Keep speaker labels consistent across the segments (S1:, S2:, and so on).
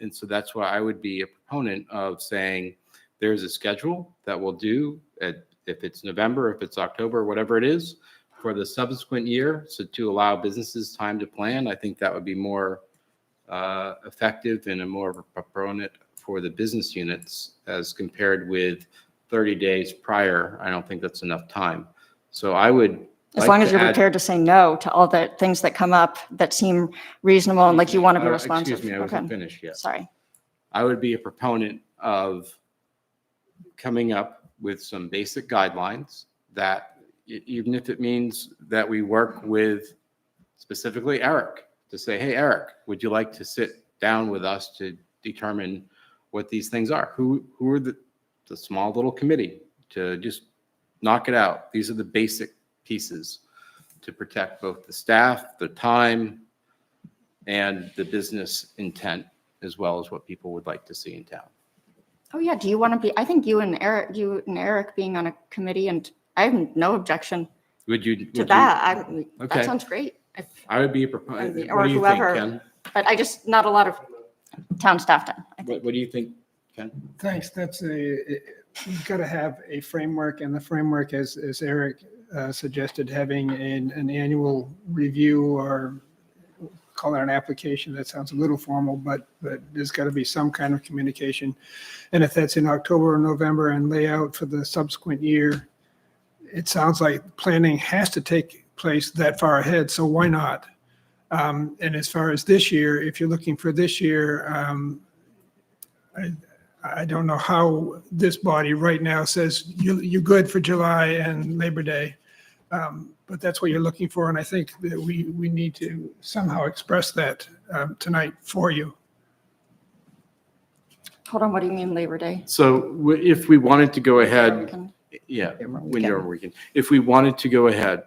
S1: And so that's why I would be a proponent of saying there's a schedule that we'll do at, if it's November, if it's October, whatever it is, for the subsequent year. So to allow businesses time to plan, I think that would be more uh, effective and a more of a proponent for the business units as compared with 30 days prior. I don't think that's enough time. So I would.
S2: As
S1: like
S2: long
S1: to
S2: as you're
S1: add-
S2: prepared to say no to all the things that come up that seem reasonable and like you want to be
S1: Oh,
S2: responsive.
S1: Excuse me, I
S2: Okay,
S1: wasn't finished yet.
S2: sorry.
S1: I would be a proponent of coming up with some basic guidelines that, e- even if it means that we work with specifically Eric to say, hey, Eric, would you like to sit down with us to determine what these things are? Who, who are the, the small little committee to just knock it out? These are the basic pieces to protect both the staff, the time, and the business intent as well as what people would like to see in town.
S2: Oh, yeah, do you want to be, I think you and Eric, you and Eric being on a committee and I have no objection
S1: Would you? would
S2: to
S1: you-
S2: that. I,
S1: Okay.
S2: that sounds great. I-
S1: I would be a
S2: I mean,
S1: proponent.
S2: or
S1: What do you think,
S2: whoever.
S1: Ken?
S2: But I just, not a lot of town staff done. I think
S1: What, what do you think, Ken?
S3: Thanks. That's a, you've got to have a framework and the framework as, as Eric uh, suggested, having an, an annual review or call it an application. That sounds a little formal, but, but there's got to be some kind of communication. And if that's in October or November and layout for the subsequent year, it sounds like planning has to take place that far ahead. So why not? Um, And as far as this year, if you're looking for this year, um, I don't know how this body right now says you, you're good for July and Labor Day. Um, But that's what you're looking for, and I think that we, we need to somehow express that um, tonight for you.
S2: Hold on, what do you mean Labor Day?
S1: So w- if we wanted to go ahead,
S2: Weekend?
S1: yeah,
S2: Labor
S1: when you're working, if we wanted to go ahead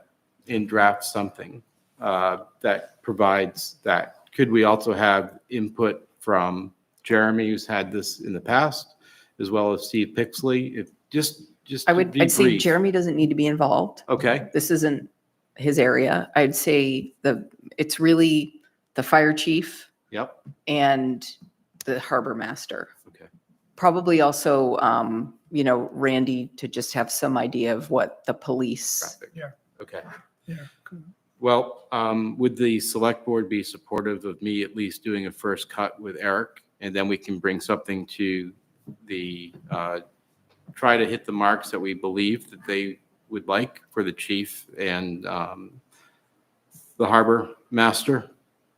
S1: and draft something uh, that provides that, could we also have input from Jeremy, who's had this in the past, as well as Steve Pixley? If, just, just.
S4: I
S1: to
S4: would,
S1: be
S4: I'd say
S1: brief.
S4: Jeremy doesn't need to be involved.
S1: Okay.
S4: This isn't his area. I'd say the, it's really the fire chief
S1: Yep.
S4: and the harbor master.
S1: Okay.
S4: Probably also, um, you know, Randy to just have some idea of what the police.
S1: Traffic.
S3: Yeah.
S1: Okay.
S3: Yeah.
S1: Well, um, would the select board be supportive of me at least doing a first cut with Eric? And then we can bring something to the, uh, try to hit the marks that we believe that they would like for the chief and um, the harbor master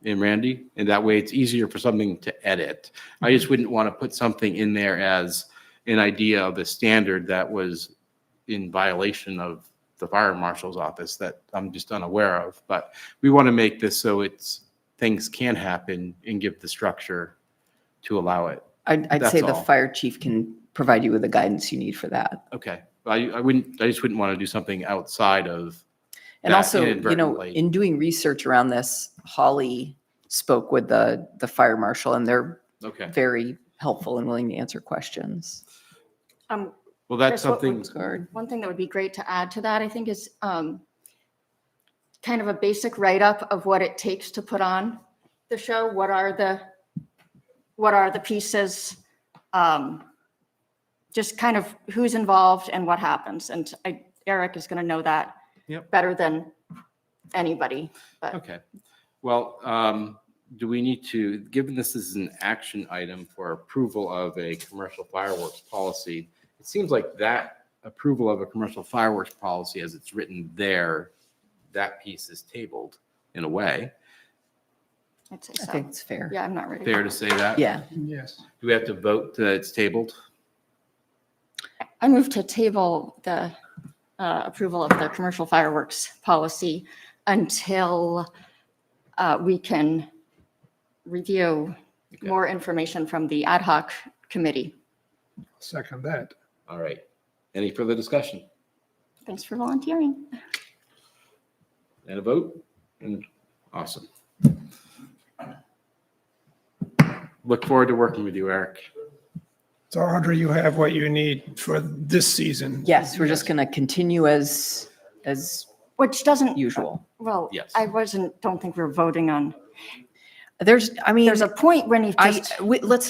S1: and Randy. And that way it's easier for something to edit. I just wouldn't want to put something in there as an idea of a standard that was in violation of the fire marshal's office that I'm just unaware of. But we want to make this so it's, things can happen and give the structure to allow it.
S4: I'd, I'd say
S1: That's
S4: the
S1: all.
S4: fire chief can provide you with the guidance you need for that.
S1: Okay. I, I wouldn't, I just wouldn't want to do something outside of,
S4: And
S1: That
S4: also, you know,
S1: inadvertently-
S4: in doing research around this, Holly spoke with the, the fire marshal and they're
S1: okay.
S4: very helpful and willing to answer questions.
S2: Um,
S1: Well, that's
S2: Chris, what
S1: something,
S2: would- One thing that would be great to add to that, I think, is um, kind of a basic write-up of what it takes to put on the show. What are the, what are the pieces? um, Just kind of who's involved and what happens. And I- Eric is going to know that
S1: Yep.
S2: better than anybody.
S1: okay. Well, um, do we need to, given this is an action item for approval of a commercial fireworks policy, it seems like that approval of a commercial fireworks policy as it's written there, that piece is tabled in a way.
S2: I'd say
S4: I think
S2: so.
S4: it's fair.
S2: Yeah, I'm not ready.
S1: Fair to say that?
S4: Yeah.
S3: Yes.
S1: Do we have to vote that it's tabled?
S2: I move to table the uh, approval of the commercial fireworks policy until uh, we can review
S1: Okay.
S2: more information from the ad hoc committee.
S3: Second that.
S1: All right. Any further discussion?
S2: Thanks for volunteering.
S1: And a vote? And awesome. Look forward to working with you, Eric.
S3: So Audrey, you have what you need for this season.
S4: Yes, we're just going to continue as, as
S2: Which doesn't,
S4: usual.
S2: well,
S1: Yes.
S2: I wasn't, don't think we're voting on.
S4: There's, I mean,
S2: There's a point when you
S4: I,
S2: just.
S4: we- let's